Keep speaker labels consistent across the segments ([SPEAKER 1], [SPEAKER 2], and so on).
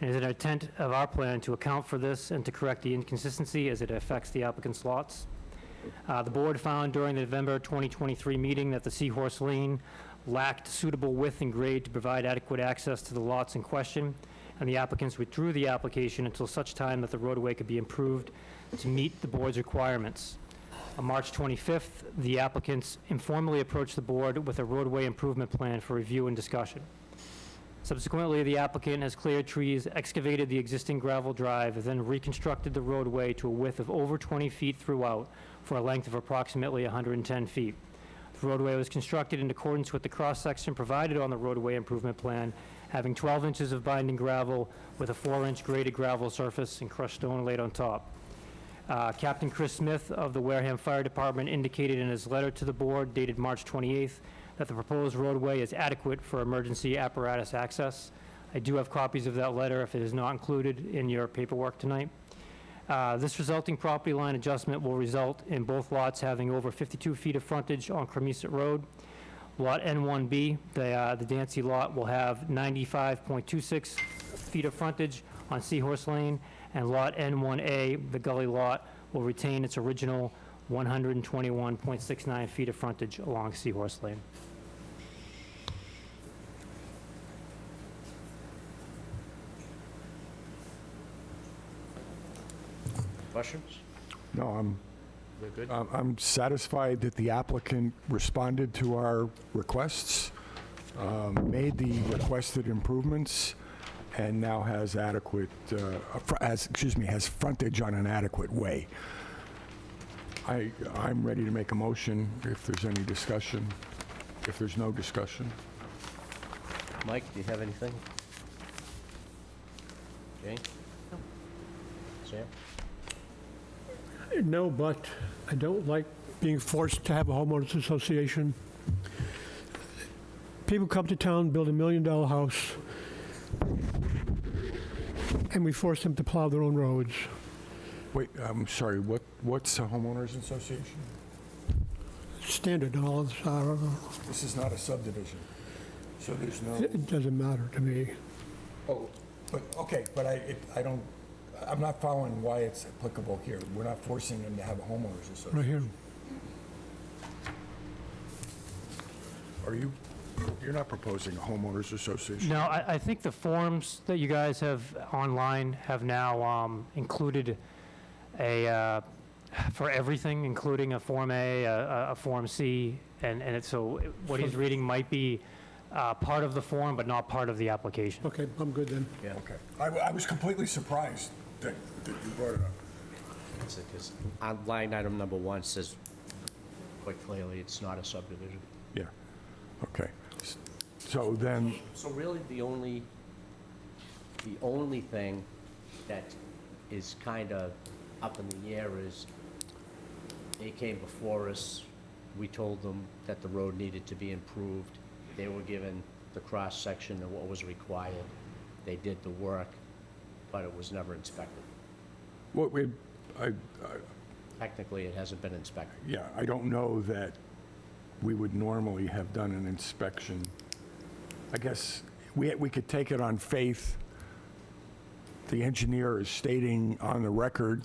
[SPEAKER 1] And is it an intent of our plan to account for this and to correct the inconsistency as it affects the applicant's lots? Uh, The board found during the November 2023 meeting that the Seahorse Lane lacked suitable width and grade to provide adequate access to the lots in question, and the applicants withdrew the application until such time that the roadway could be improved to meet the board's requirements. On March 25th, the applicants informally approached the board with a roadway improvement plan for review and discussion. Subsequently, the applicant has cleared trees, excavated the existing gravel drive, then reconstructed the roadway to a width of over 20 feet throughout for a length of approximately 110 feet. The roadway was constructed in accordance with the cross-section provided on the roadway improvement plan, having 12 inches of binding gravel with a 4-inch graded gravel surface and crushed stone laid on top. Uh, Captain Chris Smith of the Wareham Fire Department indicated in his letter to the board dated March 28th that the proposed roadway is adequate for emergency apparatus access. I do have copies of that letter if it is not included in your paperwork tonight. Uh, This resulting property line adjustment will result in both lots having over 52 feet of frontage on Cremisa Road. Lot N1B, the uh, the Dancy lot will have 95.26 feet of frontage on Seahorse Lane, and Lot N1A, the gully lot, will retain its original 121.69 feet of frontage along Seahorse Lane.
[SPEAKER 2] Questions?
[SPEAKER 3] No, I'm,
[SPEAKER 2] We're good?
[SPEAKER 3] I'm- I'm satisfied that the applicant responded to our requests, um, made the requested improvements, and now has adequate, uh, fr- has, excuse me, has frontage on an adequate way. I, I'm ready to make a motion if there's any discussion, if there's no discussion.
[SPEAKER 2] Mike, do you have anything? Jane? Sam?
[SPEAKER 4] No, but I don't like being forced to have a homeowners association. People come to town, build a million-dollar house, and we force them to plow their own roads.
[SPEAKER 3] Wait, I'm sorry, what, what's a homeowners association?
[SPEAKER 4] Standard, all of us are,
[SPEAKER 3] This is not a subdivision, so there's no...
[SPEAKER 4] it doesn't matter to me.
[SPEAKER 3] Oh, but, okay, but I, it- I don't, I'm not following why it's applicable here. We're not forcing them to have a homeowners
[SPEAKER 4] Right
[SPEAKER 3] association.
[SPEAKER 4] here,
[SPEAKER 3] Are you, you're not proposing a homeowners association?
[SPEAKER 1] No, I, I think the forms that you guys have online have now um, included a, uh, for everything, including a Form A, a- a, a Form C, and, and it's, so what he's reading might be uh, part of the form, but not part of the application.
[SPEAKER 4] okay, I'm good then.
[SPEAKER 2] Yeah,
[SPEAKER 3] Okay. I, w- I was completely surprised that, that you brought it up.
[SPEAKER 2] because uh, line item number one says quite clearly it's not a subdivision.
[SPEAKER 3] Yeah, okay. So then,
[SPEAKER 2] So really, the only, the only thing that is kind of up in the air is they came before us, we told them that the road needed to be improved. They were given the cross-section of what was required. They did the work, but it was never inspected.
[SPEAKER 3] what we, I,
[SPEAKER 2] Technically, it hasn't been inspected.
[SPEAKER 3] yeah, I don't know that we would normally have done an inspection. I guess we, we could take it on faith. The engineer is stating on the record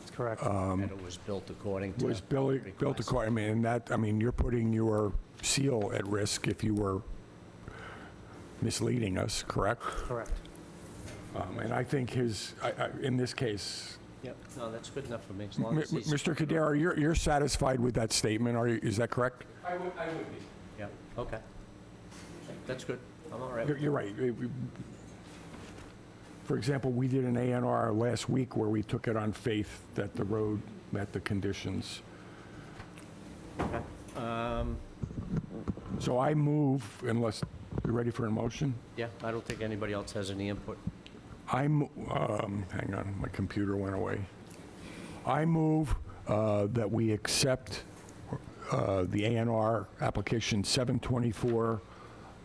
[SPEAKER 1] That's correct.
[SPEAKER 2] And it was built according to.
[SPEAKER 3] Um, was built, built
[SPEAKER 2] request.
[SPEAKER 3] according, I mean, and that, I mean, you're putting your seal at risk if you were misleading us, correct?
[SPEAKER 1] Correct.
[SPEAKER 3] Um, And I think his, I- I- in this case,
[SPEAKER 2] Yep, no, that's good enough for me, as
[SPEAKER 3] M-
[SPEAKER 2] long
[SPEAKER 3] M-
[SPEAKER 2] as he's.
[SPEAKER 3] Mr. Cudaro, you're, you're satisfied with that statement, are you, is that correct?
[SPEAKER 5] I would, I would be.
[SPEAKER 2] Yeah, okay. That's good, I'm all right.
[SPEAKER 3] You're- You're right. It- we- For example, we did an A and R last week where we took it on faith that the road met the conditions. So I move, unless, you're ready for a motion?
[SPEAKER 2] Yeah, I don't think anybody else has any input.
[SPEAKER 3] I'm, um, hang on, my computer went away. I move uh, that we accept uh, the ANR application 724,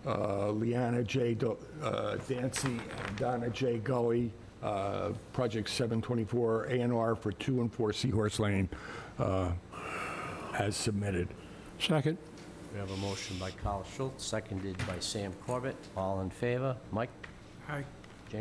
[SPEAKER 3] uh, Leanna J. Do- uh, Dancy and Donna J. Gully, uh, Project 724 ANR for 2 and 4 Seahorse Lane, uh, as submitted.
[SPEAKER 4] Second,
[SPEAKER 2] We have a motion by Carl Schultz, seconded by Sam Corbett. All in favor? Mike?
[SPEAKER 6] Aye.